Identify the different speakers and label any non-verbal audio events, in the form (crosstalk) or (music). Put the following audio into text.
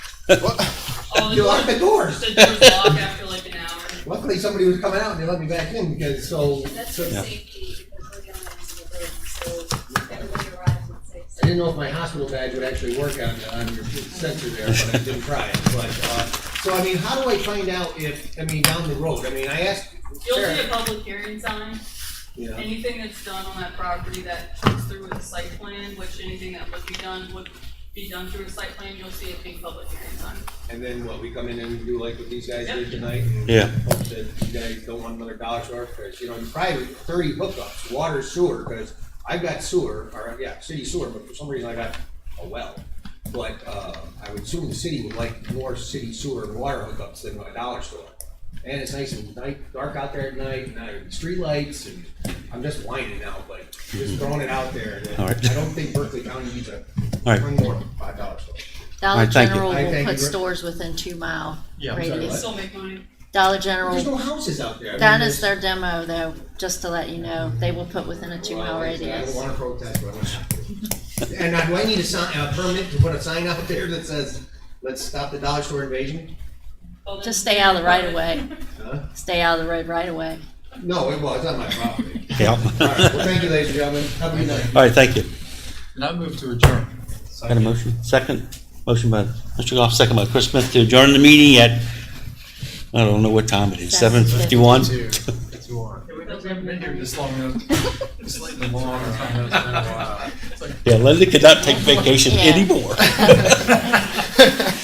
Speaker 1: Oh, the
Speaker 2: You
Speaker 1: door-
Speaker 2: locked the doors.
Speaker 1: The doors lock after like an hour.
Speaker 2: Luckily, somebody was coming out and they let me back in because, so,
Speaker 3: That's
Speaker 2: so
Speaker 3: for
Speaker 2: I
Speaker 3: safety, because we're gonna miss the break, so everybody arrives at six.
Speaker 2: didn't know if my hospital badge would actually work on, on your sensor there, but I didn't try it, but, uh, so I mean, how do I find out if, I mean, down the road, I mean, I asked
Speaker 1: You'll see
Speaker 2: Sarah.
Speaker 1: a public hearing sign.
Speaker 2: Yeah.
Speaker 1: Anything that's done on that property that comes through with a site plan, which anything that would be done would be done through a site plan, you'll see a big public hearing sign.
Speaker 2: And then what, we come in and do like what these guys
Speaker 1: Yep.
Speaker 2: did tonight? and
Speaker 4: Yeah.
Speaker 2: Hope that you guys don't want another dollar store, because, you know, you probably have thirty hookups, water, sewer, because I've got sewer, or, yeah, city sewer, but for some reason I got a well. But, uh, I would assume the city would like more city sewer and water hookups than a dollar store. And it's nice and night, dark out there at night, and I, streetlights, and I'm just whining now, but just throwing it out there. that
Speaker 4: Mm-hmm. All right.
Speaker 2: I don't think Berkeley County needs a,
Speaker 4: All right.
Speaker 2: one more five dollar store.
Speaker 4: All
Speaker 5: Dollar
Speaker 4: right, thank you.
Speaker 5: General
Speaker 2: I
Speaker 5: will
Speaker 2: thank
Speaker 5: put
Speaker 2: you.
Speaker 5: stores within two mile
Speaker 2: I'm sorry,
Speaker 1: You
Speaker 2: What?
Speaker 5: radius.
Speaker 1: still make money.
Speaker 5: Dollar
Speaker 2: There's no
Speaker 5: General,
Speaker 2: houses out there. I mean,
Speaker 5: that
Speaker 2: there's-
Speaker 5: is their demo though, just to let you know, they will put within a two
Speaker 2: Well,
Speaker 5: mile
Speaker 2: like I said, I
Speaker 5: radius.
Speaker 2: don't wanna protest, but I'm gonna have to. And now, do I need a sign, a permit to put a sign out there that says, let's stop the dollar store invasion?
Speaker 1: Well, then-
Speaker 5: Just stay out of the right of way,
Speaker 2: Huh?
Speaker 5: stay out of the road right of way.
Speaker 2: No, it was, on my property.
Speaker 4: Yeah.
Speaker 2: All right, well, thank you, ladies and gentlemen, have a good night.
Speaker 4: All right, thank you.
Speaker 6: And I move to adjourn.
Speaker 4: Got a motion? Second? Motion by Mr. Goff, second by Chris Smith to adjourn the meeting at, I don't know what time it is, seven
Speaker 5: Seven
Speaker 4: fifty-one?
Speaker 6: Two, two on. Yeah, we we haven't been here this long, enough. It's like a long time, it's been a while. It's like
Speaker 4: (laughs) Yeah, Linda could not take vacation
Speaker 5: Yeah.
Speaker 4: anymore.